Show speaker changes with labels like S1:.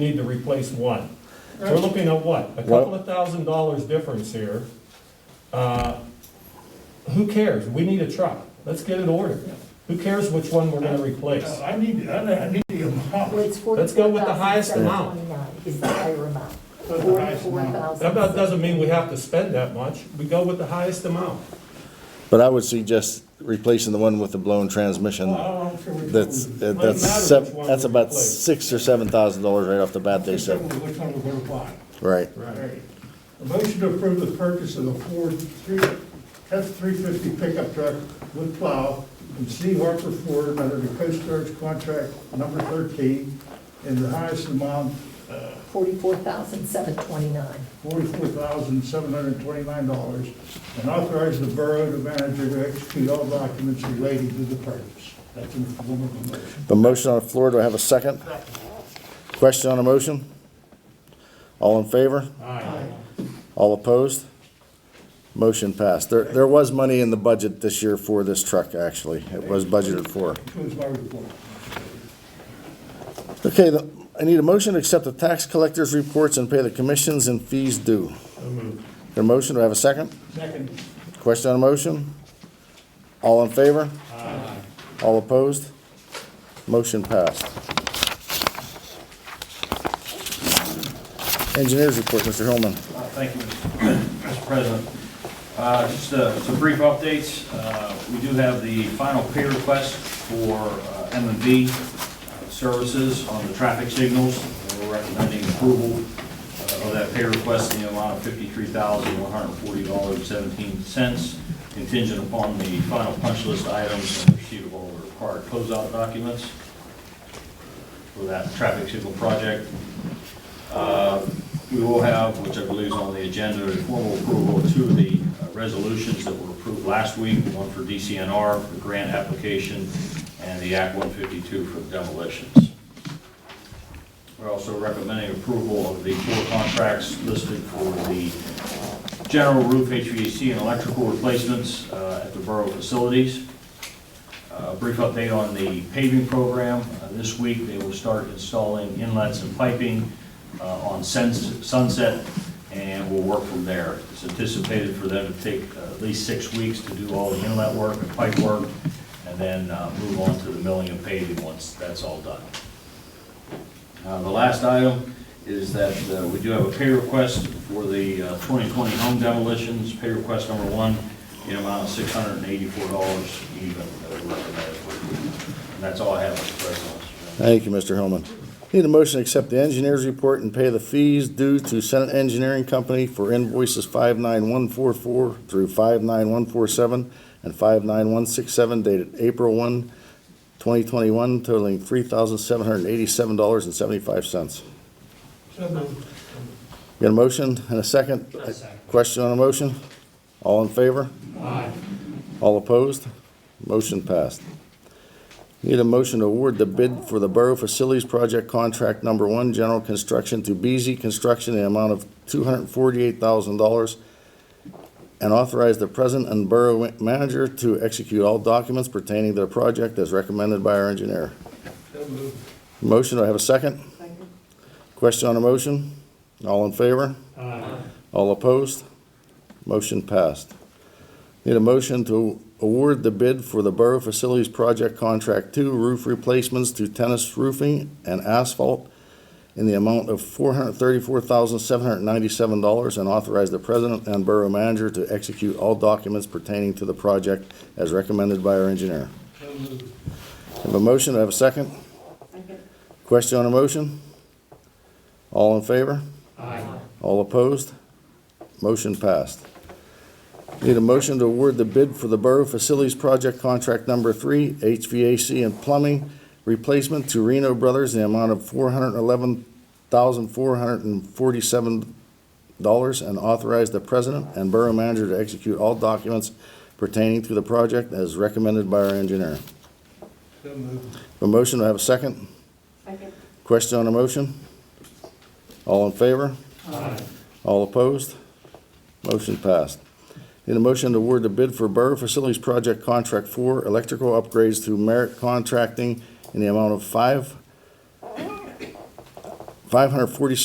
S1: need to replace one. We're looking at what, a couple of thousand dollars difference here. Uh, Who cares? We need a truck. Let's get it ordered. Who cares which one we're gonna replace?
S2: I need, I need the
S3: Well,
S2: amount.
S3: it's forty-four
S1: Let's go with the
S3: thousand
S1: highest
S3: seven
S1: amount.
S3: twenty-nine is the higher amount.
S2: That's the highest
S3: Forty-four
S2: amount.
S3: thousand.
S1: That about doesn't mean we have to spend that much. We go with the highest amount.
S4: But I would suggest replacing the one with the blown transmission.
S2: Well, I don't care which one
S4: That's,
S2: we-
S4: uh,
S1: Doesn't matter
S4: that's, sev-
S1: which one
S4: that's
S1: we
S4: about
S1: replace.
S4: six or seven thousand dollars right off the bat, they
S2: Which one
S4: said.
S2: we- which one we're gonna buy.
S4: Right.
S2: Right. A motion to approve the purchase of a Ford three, F three fifty pickup truck with plow from C Harper Ford under the Coast Guard contract number thirteen in the highest amount,
S3: Forty-four thousand seven twenty-nine.
S2: forty-four thousand, seven hundred and twenty-nine dollars, and authorize the borough to manager to execute all documents relating to the purchase. That's in the form of a motion.
S4: The motion on the floor, do I have a second? Question on the motion? All in favor? All opposed? Motion passed. There, there was money in the budget this year for this truck, actually. It was budgeted for.
S2: Concludes my report.
S4: Okay, the- I need a motion to accept the tax collector's reports and pay the commissions and fees due. Your motion, do I have a second?
S2: Second.
S4: Question on the motion? All in favor? All opposed? Motion passed. Engineers report, Mr. Hillman.
S5: Uh, Thank you, Mr. President. Uh, Just uh, some brief updates. Uh, We do have the final pay request for uh, m and V uh, services on the traffic signals. We're recommending approval uh, of that pay request in the amount of $53,140.17 contingent upon the final punch list items and receipt of all the required closeout documents for that traffic signal project. Uh, We will have, which I believe is on the agenda, is formal approval of two of the uh, resolutions that were approved last week, one for DCNR, for grant application, and the Act 152 for demolitions. We're also recommending approval of the four contracts listed for the general roof HVAC and electrical replacements uh, at the borough facilities. A brief update on the paving program. Uh, This week, they will start installing inlets and piping uh, on Suns- Sunset, and we'll work from there. It's anticipated for them to take uh, at least six weeks to do all the inlet work and pipe work, and then uh, move on to the milling and paving once that's all done. Uh, The last item is that uh, we do have a pay request for the uh, 2020 home demolitions, pay request number one, in amount of $684 even, that we recommend. And that's all I have, Mr. President.
S4: Thank you, Mr. Hillman. Need a motion to accept the engineers report and pay the fees due to Senate Engineering Company for invoices 59144 through 59147 and 59167 dated April 1, 2021 totaling $3,787.75.
S2: So moved.
S4: Got a motion and a second? Question on a motion? All in favor? All opposed? Motion passed. Need a motion to award the bid for the Borough Facilities Project Contract Number One, General Construction to BZ Construction in the amount of two hundred and forty-eight thousand dollars and authorize the President and Borough Manager to execute all documents pertaining to the project as recommended by our engineer.
S2: So moved.
S4: Motion, do I have a second?
S3: Second.
S4: Question on a motion? All in favor? All opposed? Motion passed. Need a motion to award the bid for the Borough Facilities Project Contract Two roof replacements to tennis roofing and asphalt in the amount of four hundred thirty-four thousand, seven hundred ninety-seven dollars and authorize the president and borough manager to execute all documents pertaining to the project as recommended by our engineer.
S2: So moved.
S4: Have a motion, Do I have a second? Question on a motion? All in favor? Aye. All opposed? Motion passed. Need a motion to award the bid for the Borough Facilities Project Contract Number Three, HVAC and Plumbing Replacement to Reno Brothers in the amount of four hundred eleven thousand, four hundred and forty-seven dollars and authorize the president and borough manager to execute all documents pertaining to the project as recommended by our engineer.
S2: So moved.
S4: A motion, do I have a second?
S3: Second.
S4: Question on a motion? All in favor? All opposed? Motion passed. Need a motion to award the bid for Borough Facilities Project Contract Four, electrical upgrades through Merit Contracting in the amount of five, five hundred forty-six